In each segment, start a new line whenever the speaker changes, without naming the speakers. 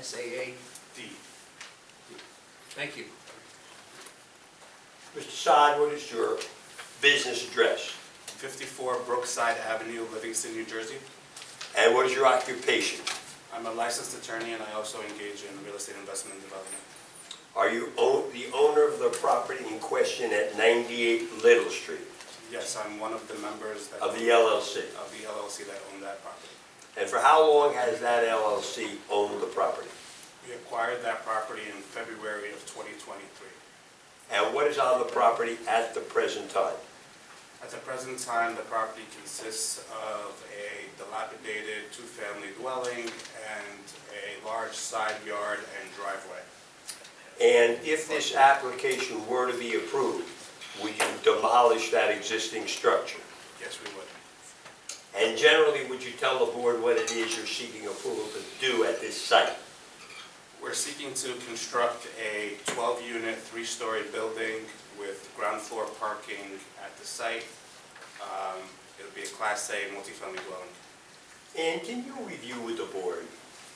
SAA.
D.
Thank you.
Mr. Sod, what is your business address?
54 Brookside Avenue, Livingston, New Jersey.
And what is your occupation?
I'm a licensed attorney and I also engage in real estate investment and development.
Are you o- the owner of the property in question at 98 Little Street
Yes, I'm one of the members that,
of
of
the LLC?
the LLC that owned that property.
And for how long has that LLC owned the property?
We acquired that property in February of 2023.
And what is on the property at the present time?
At the present time, the property consists of a dilapidated two-family dwelling and a large side yard and driveway.
And if this application were to be approved, would you demolish that existing structure?
Yes, we would.
And generally, would you tell the board what it is you're seeking approval to do at this site?
We're seeking to construct a 12-unit, three-story building with ground floor parking at the site. Um, It'll be a Class A multifamily dwelling.
And can you review with the board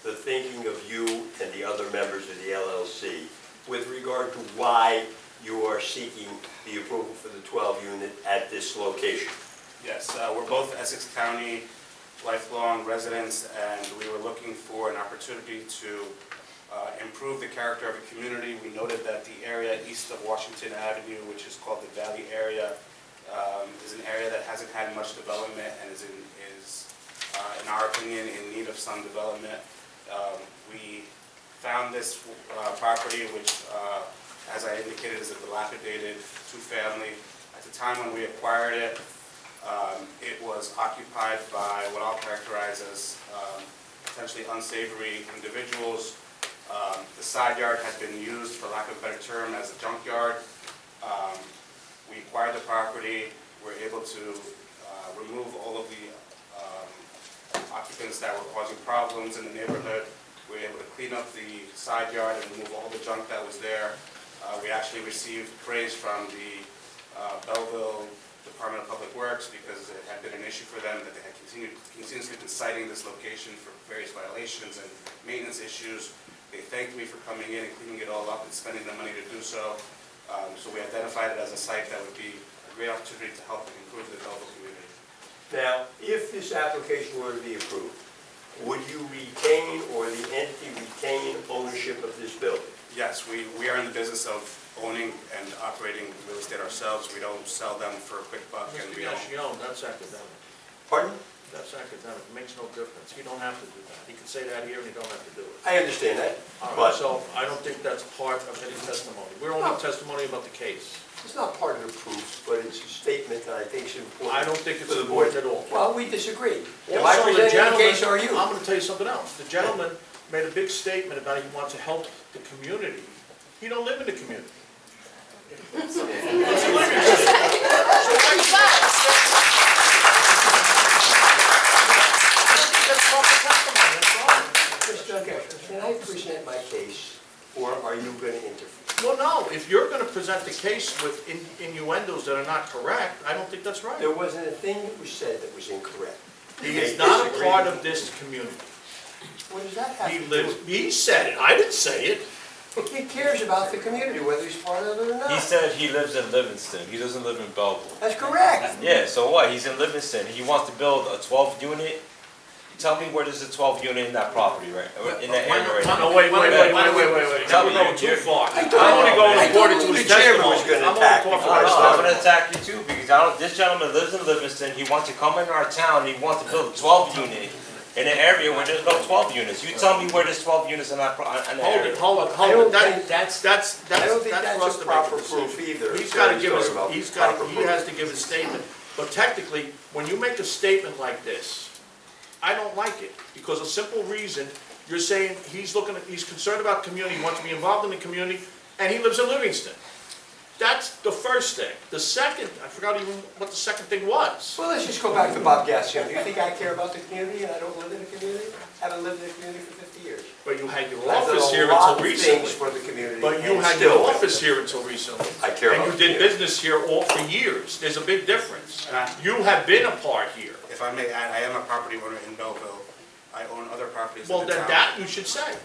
the thinking of you and the other members of the LLC with regard to why you are seeking the approval for the 12 unit at this location?
Yes, uh, we're both Essex County lifelong residents, and we were looking for an opportunity to uh, improve the character of the community. We noted that the area east of Washington Avenue, which is called the Valley area, um, is an area that hasn't had much development and is, in- is, uh, in our opinion, in need of some development. Um, We found this uh, property, which, uh, as I indicated, is a dilapidated two-family. At the time when we acquired it, um, It was occupied by what I'll characterize as um, potentially unsavory individuals. Um, The side yard had been used, for lack of a better term, as a junkyard. Um, We acquired the property, were able to uh, remove all of the um, occupants that were causing problems in the neighborhood. We were able to clean up the side yard and remove all the junk that was there. Uh, We actually received praise from the uh, Belleville Department of Public Works because it had been an issue for them that they had continued, continuously been citing this location for various violations and maintenance issues. They thanked me for coming in and cleaning it all up and spending the money to do so. Um, So we identified it as a site that would be a great opportunity to help improve the Belleville community.
Now, if this application were to be approved, would you retain or the entity retain ownership of this building?
Yes, we, we are in the business of owning and operating real estate ourselves. We don't sell them for a quick buck and
Mr.
we don't.
Yashion, that's academic.
Pardon?
That's academic. It makes no difference. You don't have to do that. You can say that here and you don't have to do it.
I understand that,
All right,
but
so I don't think that's part of any testimony. We're only testimony about the case.
it's not part of the proof, but it's a statement that I think is important.
I don't think it's
for the board.
important at all.
Well, we disagree. Am I
Also, the
presenting the
gentleman-
case or are you?
I'm gonna tell you something else. The gentleman made a big statement about he wants to help the community. He don't live in the community. That's proper testimony, that's all.
Mr. Duncan, can I present my case, or are you going to interfere?
Well, no, if you're gonna present the case with in- innuendos that are not correct, I don't think that's right.
There wasn't a thing that was said that was incorrect.
He is not a part of this community.
What does that have
He
to do
lives, he said it, I didn't say it.
with it? He cares about the community, whether he's part of it or
He
not.
said he lives in Livingston. He doesn't live in Belleville.
That's correct.
Yeah, so what? He's in Livingston. He wants to build a 12 unit. Tell me where there's a 12 unit in that property, right? or In that area, right?
No, wait, wait, wait, wait, wait, wait, wait.
Tell me
We're going too
you're-
far.
I
I'm
don't-
only
I
going
don't
according
know
to his
the chairman was
testimony.
gonna
I'm only
attack
talking
me.
about
I
his
know, I'm gonna
testimony.
attack you too, because I don't, this gentleman lives in Livingston, he wants to come in our town, he wants to build a twelve unit in an area where there's no twelve units. You tell me where there's twelve units in that, pro- in that
Hold
area.
it, hold it,
I don't
hold it, that,
think-
that's, that's,
I don't
that's,
think that's
that's for us
a
to make
proper
a decision.
proof either,
He's
so
gotta
he's
give us,
talking about
he's gotta,
proper
he
proof.
has to give a statement, but technically, when you make a statement like this, I don't like it, because a simple reason, you're saying he's looking, at- he's concerned about community, he wants to be involved in the community, and he lives in Livingston. That's the first thing. The second, I forgot even what the second thing was.
Well, let's just go back to Bob Gassion. Do you think I care about the community and I don't live in the community? Haven't lived in the community for 50 years.
But you had your
I've done
office here
a lot
until
of
recently.
things for the community.
But you
and
had
still
your
live.
office here until recently.
I care
And
about
you
you.
did business here all for years. There's a big difference.
And I-
You have been a part here.
If I may add, I am a property owner in Belleville. I own other properties in
Well,
the town.
then that you should say.